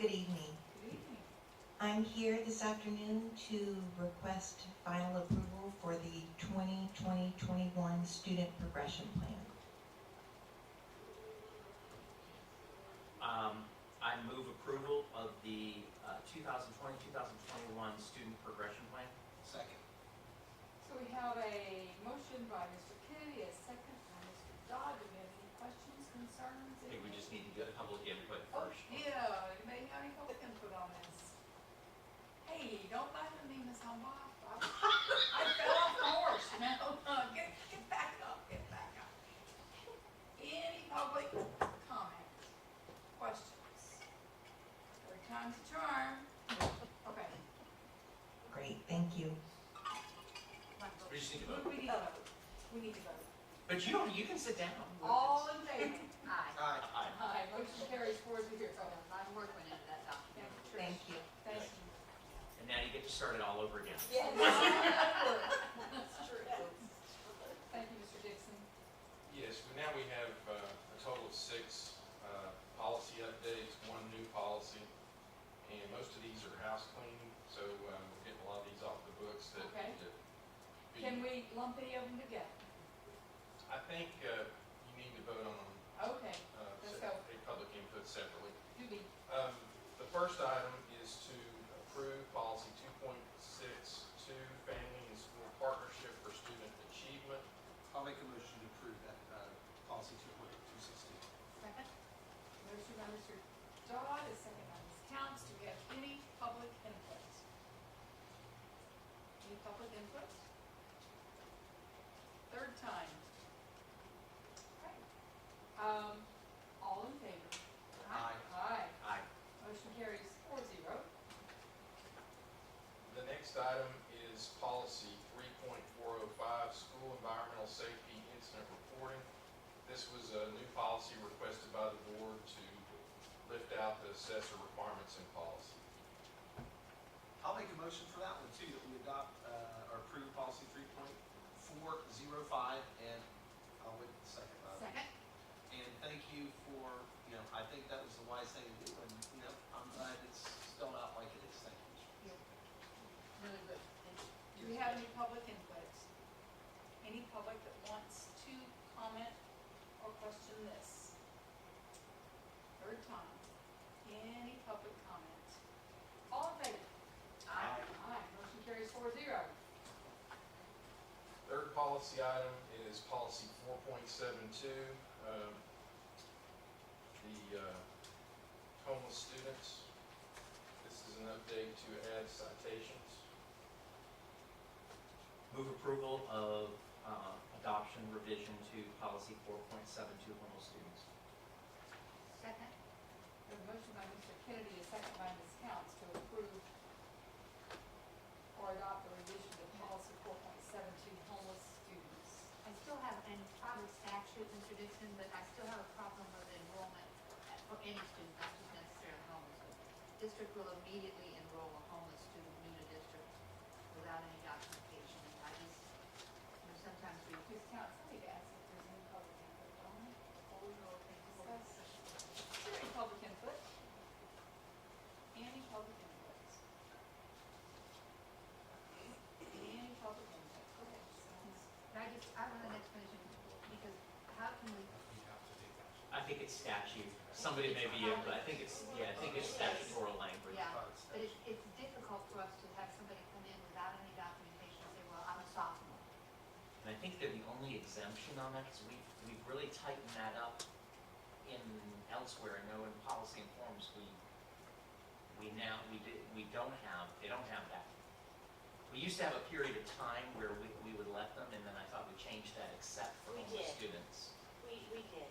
Good evening. I'm here this afternoon to request final approval for the 2020-21 student progression plan. Um, I move approval of the uh, 2020, 2021 student progression plan. Second. So we have a motion by Mr. Kennedy, a second by Mr. Dodd. Do we have any questions, concerns? I think we just need to get public input Oh, first. yeah, anybody have any public input on this? Hey, don't let them name us on off. I I fell off the horse, you know? Get, get back up, get back up. Any public comment, questions? Third time's a charm. Okay. Great, thank you. We just need to vote. We need to vote. We need to vote. But you don't, you can sit down. All in favor? Aye. Aye. Aye. Aye, motion carries four zero. I'm working into that document. Thank you, Trish. Thank Thank you. you. And now you get to start it all over again. Yes. That's true. Thank you, Mr. Dixon. Yes, but now we have uh, a total of six uh, policy updates, one new policy, and most of these are house cleaning, so uh, we're getting a lot of these off the books that. Okay. that be- Can we lump any of them together? I think uh, you need to vote on them, Okay, uh, Let's sep- go. a public input separately. do we, Um, The first item is to approve policy 2.62, family and school partnership for student achievement. I'll make a motion to approve that uh, policy 2.260. Second? motion by Mr. Dodd, a second by Ms. Counts, do we have any public input? Any public input? Third time. Okay. Um, all in favor? Aye. Aye. Aye. Motion carries four zero. The next item is policy three point four oh five, school environmental safety incident reporting. This was a new policy requested by the board to lift out the assessor requirements in policy. I'll make a motion for that one too, that we adopt uh, or approve policy 3.405 and I'll wait a second. uh, Second? And thank you for, you know, I think that was the wise thing to do and, you know, I'm glad it's spelled out like it is. Thank you. Really good. Do we have any public input? Any public that wants to comment or question this? Third time. Any public comment? All in favor? Aye. Aye, motion carries four zero. Third policy item is policy four point seven two, um, the, uh, homeless students. This is an update to add citations. Move approval of uh, adoption revision to policy 4.72 homeless students. Second? We have a motion by Mr. Kennedy, a second by Ms. Counts to approve or adopt the revision to policy four point seven two homeless students. I still have, and probably statute, Mr. Dixon, but I still have a problem with enrollment at- for any student, not just necessarily homeless. but District will immediately enroll a homeless student new to district without any documentation. And I just, you know, sometimes we Ms. Counts, let me ask if there's any public input on it. hold or discuss. Discuss. Is there any public input? Any public input? Any public input? Go ahead, sounds. And I just, I want an explanation because how can we, I think it's statute. Somebody may be, in, but I think it's, yeah, I think it's statutory language. yeah. Uh, it's- But it's, it's difficult for us to have somebody come in without any documentation and say, well, I'm a sophomore. And I think that the only exemption on that is we, we really tightened that up in elsewhere, I know in policy and forms, we, we now, we did, we don't have, they don't have that. We used to have a period of time where we, we would let them, and then I thought we changed that except for We homeless did. students. We, we did. um,